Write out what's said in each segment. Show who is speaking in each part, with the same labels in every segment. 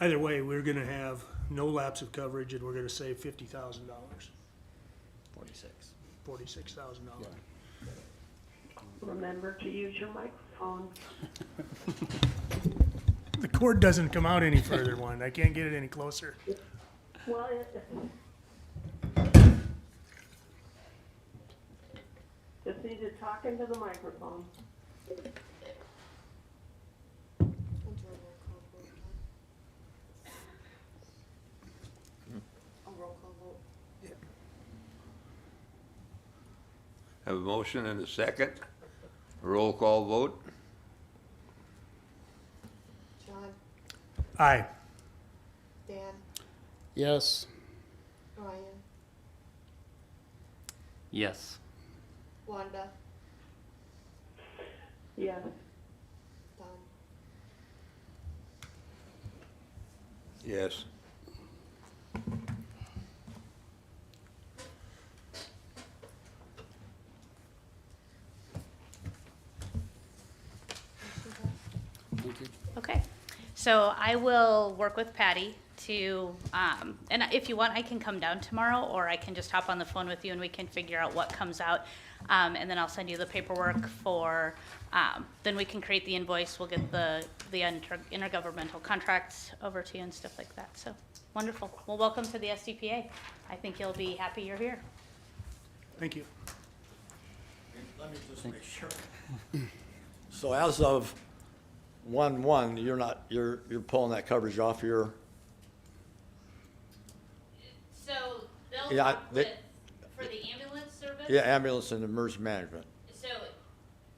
Speaker 1: Either way, we're gonna have no lapse of coverage and we're gonna save fifty thousand dollars,
Speaker 2: Forty-six.
Speaker 1: forty-six thousand dollars.
Speaker 3: Remember to use your microphone.
Speaker 1: The cord doesn't come out any further, one, I can't get it any closer.
Speaker 3: Well, it- just need to talk into the microphone.
Speaker 4: We'll do a roll call vote now. A roll call vote.
Speaker 5: Have a motion and a second. Roll call vote.
Speaker 4: John,
Speaker 1: Aye.
Speaker 4: Dan,
Speaker 6: Yes.
Speaker 4: Ryan,
Speaker 2: Yes.
Speaker 4: Wanda,
Speaker 3: Yes,
Speaker 4: Don,
Speaker 5: Yes.
Speaker 4: motion passed.
Speaker 6: Thank you.
Speaker 7: Okay, so I will work with Patty to, um, and if you want, I can come down tomorrow, or I can just hop on the phone with you and we can figure out what comes out. Um, and then I'll send you the paperwork for, um, then we can create the invoice, we'll get the, the inter- intergovernmental contracts over to you and stuff like that, so, wonderful. Well, welcome to the SDPA. I think you'll be happy you're here.
Speaker 1: Thank you.
Speaker 8: Let me just make sure. So as of one-one, you're not, you're, you're pulling that coverage off your,
Speaker 7: So, they'll
Speaker 8: Yeah, I- talk they- with-
Speaker 7: for the ambulance service?
Speaker 8: yeah, ambulance and emergency management.
Speaker 7: So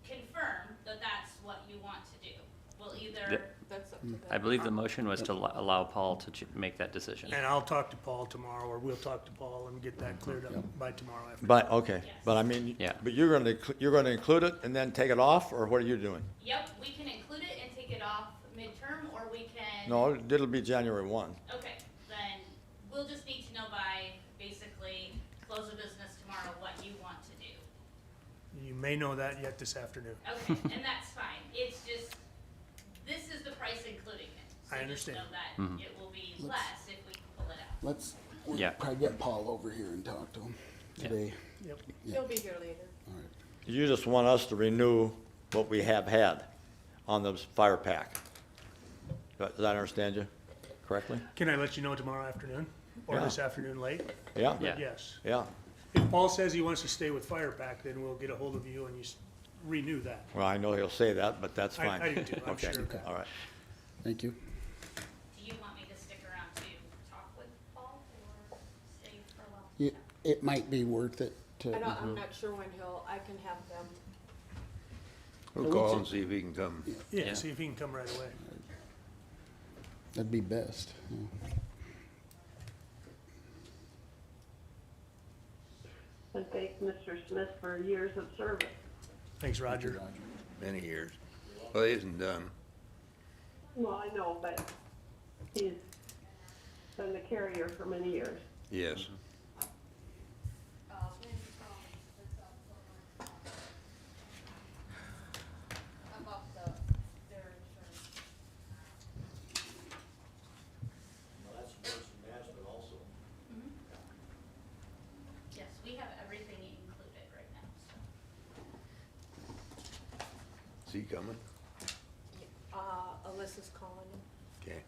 Speaker 7: confirm that that's what you want to do. We'll
Speaker 2: Th-
Speaker 7: either,
Speaker 4: That's up to them.
Speaker 2: I believe the motion was to lo- allow Paul to ch- make that decision.
Speaker 1: And I'll talk to Paul tomorrow, or we'll talk to Paul and get that cleared up by tomorrow afternoon.
Speaker 8: But, okay, but I mean,
Speaker 2: Yeah.
Speaker 8: but you're gonna, inclu- you're gonna include it and then take it off, or what are you doing?
Speaker 7: yep, we can include it and take it off midterm, or we can.
Speaker 8: No, it'll be January one.
Speaker 7: Okay, then we'll just need to know by basically close of business tomorrow what you want to do.
Speaker 1: You may know that yet this afternoon.
Speaker 7: Okay, and that's fine. It's just, this is the price including it. So
Speaker 1: I
Speaker 7: just
Speaker 1: understand.
Speaker 7: know that it will be less if we pull it out.
Speaker 6: Let's we'll
Speaker 2: Yeah.
Speaker 6: probably get Paul over here and talk to him today.
Speaker 1: Yep.
Speaker 4: He'll be here later.
Speaker 6: All right.
Speaker 8: You just want us to renew what we have had on the fire pack. Do I- Did I understand you correctly?
Speaker 1: Can I let you know tomorrow afternoon, or this afternoon late?
Speaker 8: Yeah?
Speaker 2: Yeah.
Speaker 1: Yes.
Speaker 8: Yeah,
Speaker 1: If Paul says he wants to stay with Fire Pack, then we'll get a hold of you and you s- renew that.
Speaker 8: well, I know he'll say that, but that's
Speaker 1: I-
Speaker 8: fine.
Speaker 1: I do too, I'm
Speaker 8: Okay,
Speaker 1: sure of that.
Speaker 8: All right.
Speaker 6: Thank you.
Speaker 7: Do you want me to stick around to talk with Paul or stay for a while?
Speaker 6: It, it might be worth it to.
Speaker 4: I don't, I'm not sure when he'll, I can have them.
Speaker 5: We'll call and see if he can come.
Speaker 1: Yeah,
Speaker 2: Yeah.
Speaker 1: see if he can come right away.
Speaker 6: That'd be best. yeah.
Speaker 3: and thank Mr. Smith for years of service.
Speaker 1: Thanks, Roger.
Speaker 5: Many years. Well, he isn't done.
Speaker 3: Well, I know, but he's been the carrier for many years.
Speaker 5: Yes.
Speaker 7: Yes, we have everything included right now, so.
Speaker 5: Is he coming?
Speaker 4: Uh, Alyssa's calling him.
Speaker 5: Okay.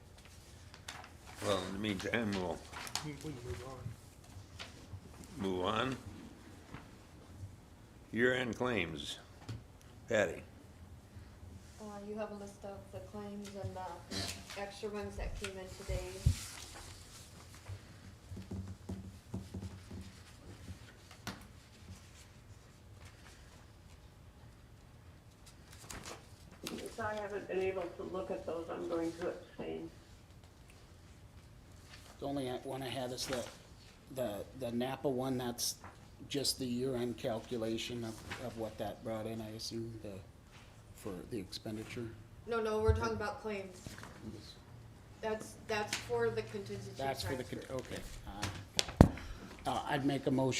Speaker 5: Well, in the meantime, we'll
Speaker 1: We we can move on.
Speaker 5: move on. Year-end claims. Patty?
Speaker 4: Uh, you have a list of the claims and the extra ones that came in today.
Speaker 3: Since I haven't been able to look at those, I'm going to abstain.
Speaker 6: The only one I had is the, the, the Napa one, that's just the year-end calculation of, of what that brought in, I assume, the, for the expenditure.
Speaker 4: No, no, we're talking about claims. That's, that's for the contingency
Speaker 6: That's for the, con-
Speaker 4: transfer.
Speaker 6: okay. uh, Uh, I'd make a motion